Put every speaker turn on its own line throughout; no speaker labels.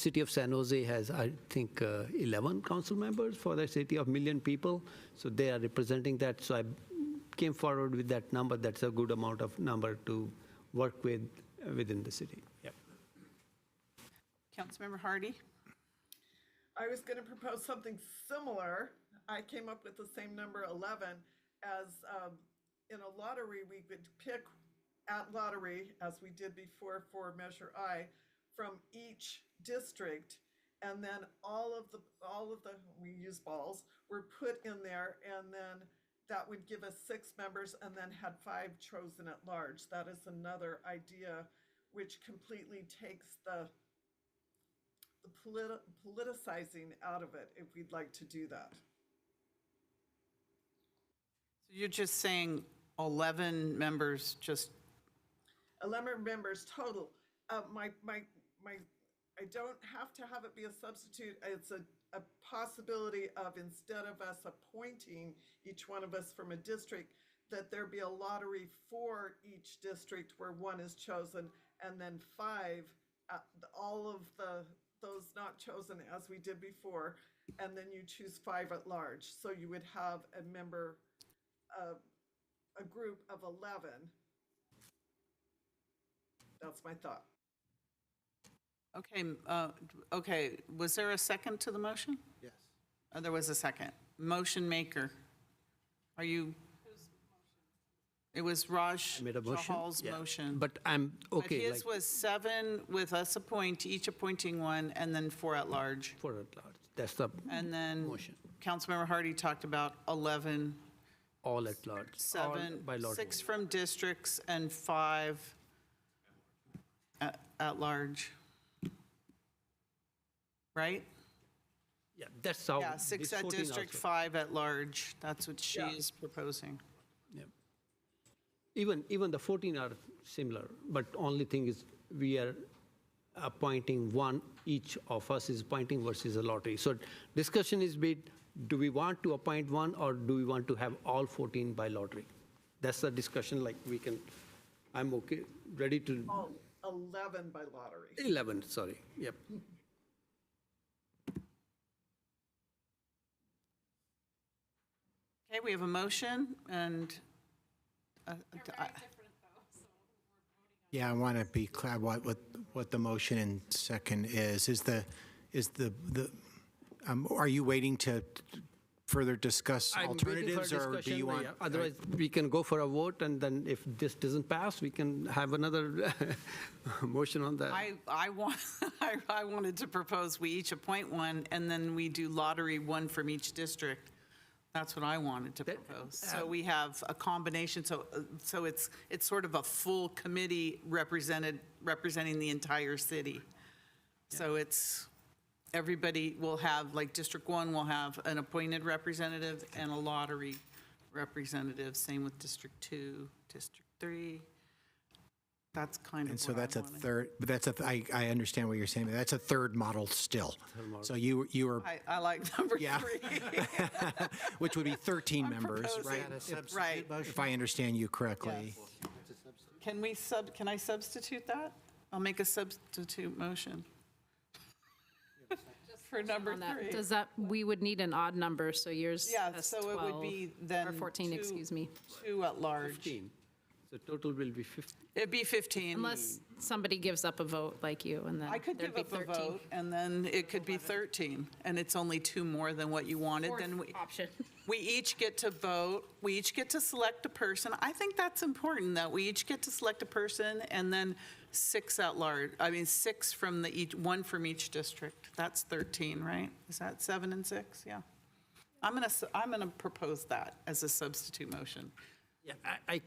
City of San Jose has, I think, uh, 11 council members for the city of million people, so they are representing that. So I came forward with that number. That's a good amount of number to work with uh, within the city. Yep.
Councilmember Hardy?
I was gonna propose something similar. I came up with the same number eleven as, um, in a lottery, we would pick at lottery, as we did before for Measure I, from each district. And then all of the, all of the, we use balls, were put in there and then that would give us six members and then had five chosen at large. That is another idea which completely takes the the politi- politicizing out of it if we'd like to do that.
You're just saying 11 members just,
11 members total. Uh, my, my, my, I don't have to have it be a substitute. It's a, a possibility of instead of us appointing each one of us from a district, that there be a lottery for each district where one is chosen and then five, uh, all of the, those not chosen as we did before. And then you choose five at large. So you would have a member, uh, a group of 11 that's my thought.
okay, uh, okay, was there a second to the motion? Yes. There was a second. Motion maker, are you? It was Raj
I made a motion.
Chahal's
Yeah.
motion.
But I'm
But
okay.
his
like,
was seven with us appoint, each appointing one, and then four at large.
for at large. That's the
And then
Motion.
Councilmember Hardy talked about 11,
all at large. all
seven,
by lottery.
six from districts and five at, at large. Right?
Yeah, that's how.
Yeah, six
this
at
14
district,
Oh, also.
five at large. That's what she is proposing.
Yeah. Even, even the 14 are similar, but only thing is we are appointing one, each of us is appointing versus a lottery. So discussion is be, do we want to appoint one or do we want to have all 14 by lottery? That's the discussion, like we can, I'm okay, ready to,
All 11 by lottery.
11, sorry, yep.
Okay, we have a motion and, uh, I-
Yeah, I want to be clear what, what, what the motion and second is. Is the, is the, the, um, are you waiting to further discuss
I'm waiting for a
alternatives? Or do
discussion,
you want?
yeah. Otherwise, we can go for a vote and then if this doesn't pass, we can have another motion on that.
I, I want, I, I wanted to propose we each appoint one, and then we do lottery, one from each district. That's what I wanted to propose.
uh,
So we have a combination, so, uh, so it's, it's sort of a full committee represented, representing the entire city. So it's, everybody will have, like District One will have an appointed representative and a lottery representative, same with District Two, District Three. That's kind of
And so
what I
that's a
wanted.
third, but that's a, th- I, I understand what you're saying, but that's a third model still. So you, you are,
I, I like number
Yeah.
three.
which would be 13 members, right?
proposing-
If-
Right.
If I understand you correctly.
Can we sub, can I substitute that? I'll make a substitute motion. For number
on that.
three.
Does that, we would need an odd number, so yours
Yeah,
has
so it would
12,
be then.
Or 14,
two-
excuse me.
Two at large.
15. So total will be 15.
It'd be 15.
Unless
Hmm.
somebody gives up a vote like you, and
I
then
could
there'd
give
be
up a
13.
vote, and then it could be 13, and it's only two more than what you wanted, then we.
Fourth option.
We each get to vote, we each get to select a person. I think that's important, that we each get to select a person, and then six at large, I mean, six from the, each, one from each district. That's 13, right? Is that seven and six? Yeah. I'm going to, I'm going to propose that as a substitute motion.
Yeah, I, I-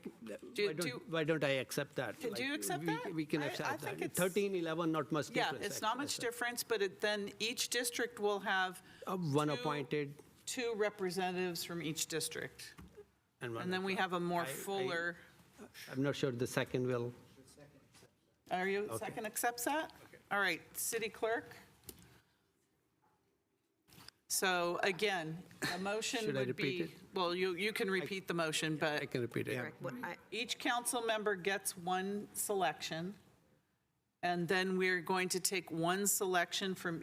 Do-
why
do-
don't, why don't I accept that?
Do you
Like,
accept
we-
that?
We can
I- I
accept
think
that.
it's-
13, 11, not much
Yeah,
difference.
it's not
actually.
much difference, but it- then each district will have
Uh, One
two-
appointed
two representatives from each district.
and one.
And then we have a more
I- I-
fuller,
I'm not sure the second will.
are you, second accepts that? All right, city clerk. So again, a motion
Should I
would
repeat it?
be, well, you, you can repeat the motion, but
I can repeat it.
each council member gets one selection, And then we're going to take one selection from